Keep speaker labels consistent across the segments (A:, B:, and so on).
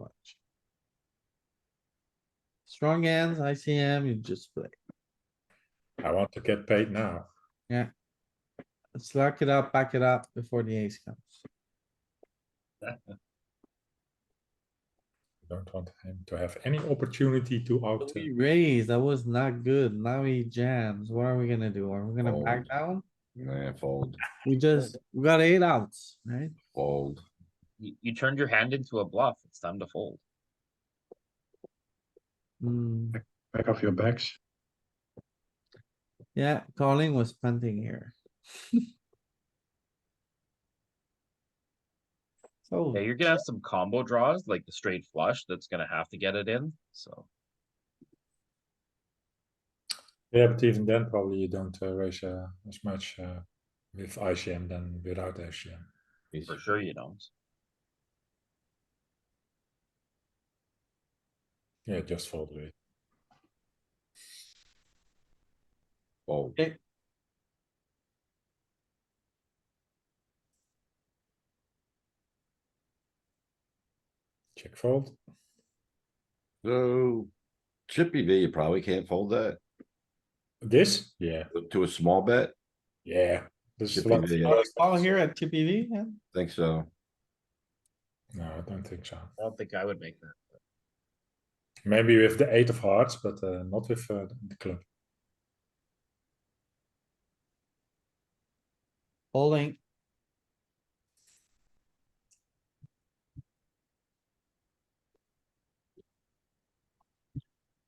A: much. Strong hands, ICM, you just play.
B: I want to get paid now.
A: Let's lock it up, pack it up before the ace comes.
B: Don't want him to have any opportunity to out. uh,
A: We raised, that was not good. Now he jams. What are we gonna do? Are we gonna back
C: Fold.
A: down?
C: Yeah, fold,
A: We just, we got eight outs, right?
C: fold.
D: You, you turned your hand into a bluff. It's time to fold.
A: Hmm,
B: Back off your backs.
A: yeah, calling was punting here. So,
D: Yeah, you're gonna have some combo draws, like the straight flush that's gonna have to get it in, so.
B: Yeah, but even then, probably you don't uh, raise uh, as much uh, with ICM than without ICM.
C: He's-
D: For sure you don't.
B: Yeah, just fold with.
C: Fold.
A: Okay.
B: Check fold.
C: So Chippy V, you probably can't fold that
B: This? Yeah,
C: to a small bet.
B: yeah. This is a
C: Chippy
B: lot.
C: V,
B: lot of-
A: all here at Chippy V, yeah?
C: Think so.
B: No, I don't think so.
D: I don't think I would make that.
B: Maybe with the eight of hearts, but uh, not with uh, the club.
A: Folding.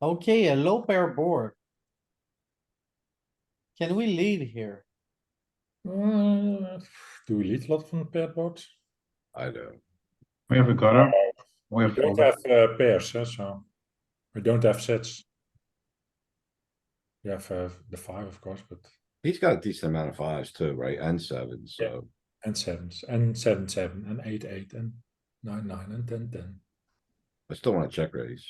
A: Okay, a low pair board. Can we lead here?
B: Uh, do we lead a lot from the pair board?
C: I do.
E: We have a ¿ah? gutter. We
B: We
E: have
B: don't
E: folded.
B: have uh, pairs, huh, so we don't have sets. We have uh, the five, of course, but
C: He's got a decent amount of fives too, right? And sevens,
B: Yeah.
C: so.
B: and sevens and seven seven and eight eight and nine nine and ten ten.
C: I still wanna check raise.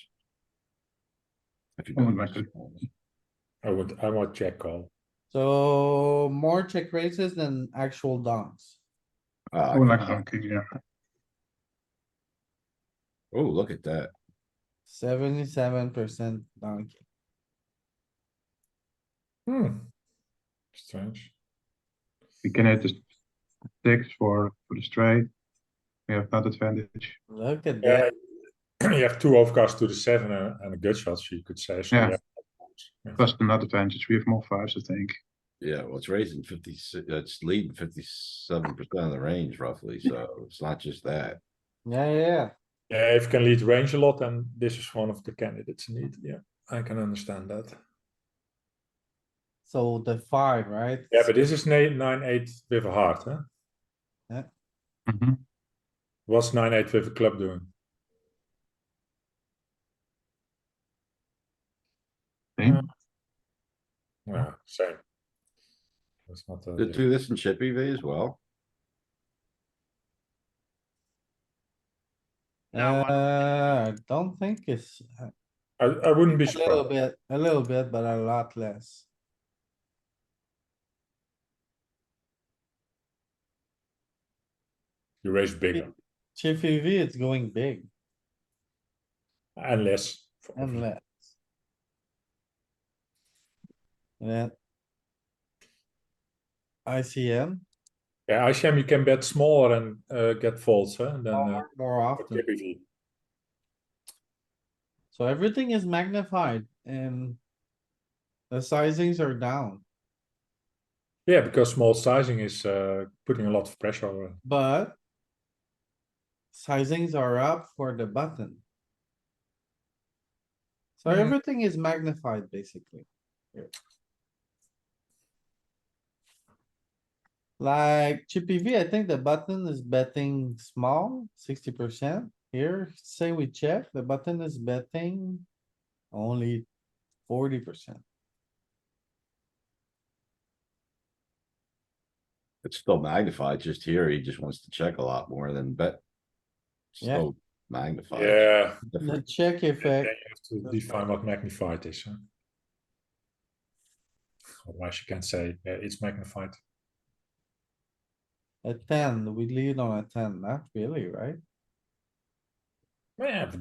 C: If you
E: Oh my
C: don't-
E: God.
B: I would I want check call.
A: So more check raises than actual donks.
C: Ah,
E: Oh, like donkey, yeah.
C: Oh, look at that.
A: Seventy-seven percent donkey.
B: Hmm. Strange.
E: We can hit the six for, for the straight. We have not advantage.
A: Look at
B: Yeah.
A: that.
B: you have two overcards to the seven and, and a gut shot, so you could say. So
E: Yeah.
B: yeah.
E: Plus the not advantage, we have more fives, I think.
C: Yeah, well, it's raising fifty, it's leading fifty-seven percent of the range roughly, so it's not just that.
A: Yeah, yeah, yeah.
B: Yeah, if you can lead range a lot, then this is one of the candidates indeed. Yeah, I can understand that.
A: So the five, right?
B: Yeah, but this is nine nine eight with a heart, huh?
E: Mm-hmm.
B: What's nine eight with a club doing?
E: Same.
B: Yeah, same. That's not a
C: Did do this in Chippy V as well.
D: Now what?
A: Uh, I don't think it's uh, a
B: I, I wouldn't be
A: little
B: surprised.
A: bit, a little bit, but a lot less.
B: You raise bigger
A: Chippy V, it's going big
B: and less.
A: and less. Yeah. ICM,
B: Yeah, ICM you can bet smaller and uh, get folds, huh? And then uh,
A: more more often.
B: typically.
A: So everything is magnified and the sizings are down,
B: Yeah, because small sizing is uh, putting a lot of pressure. uh,
A: but sizings are up for the button. So
B: Mhm.
A: everything is magnified, basically. here. Like Chippy V, I think the button is betting small, sixty percent. Here, say we check, the button is betting only forty percent.
C: It's still magnified, just here, he just wants to check a lot more than bet.
A: Yeah.
C: Still magnified.
B: Yeah.
C: Different.
A: The check
B: Then
A: effect.
B: you have to
A: That's
B: define what magnified is. Huh? Otherwise, you can say yeah, it's magnified.
A: A ten, we lead on a ten, not really, right?
B: Yeah, but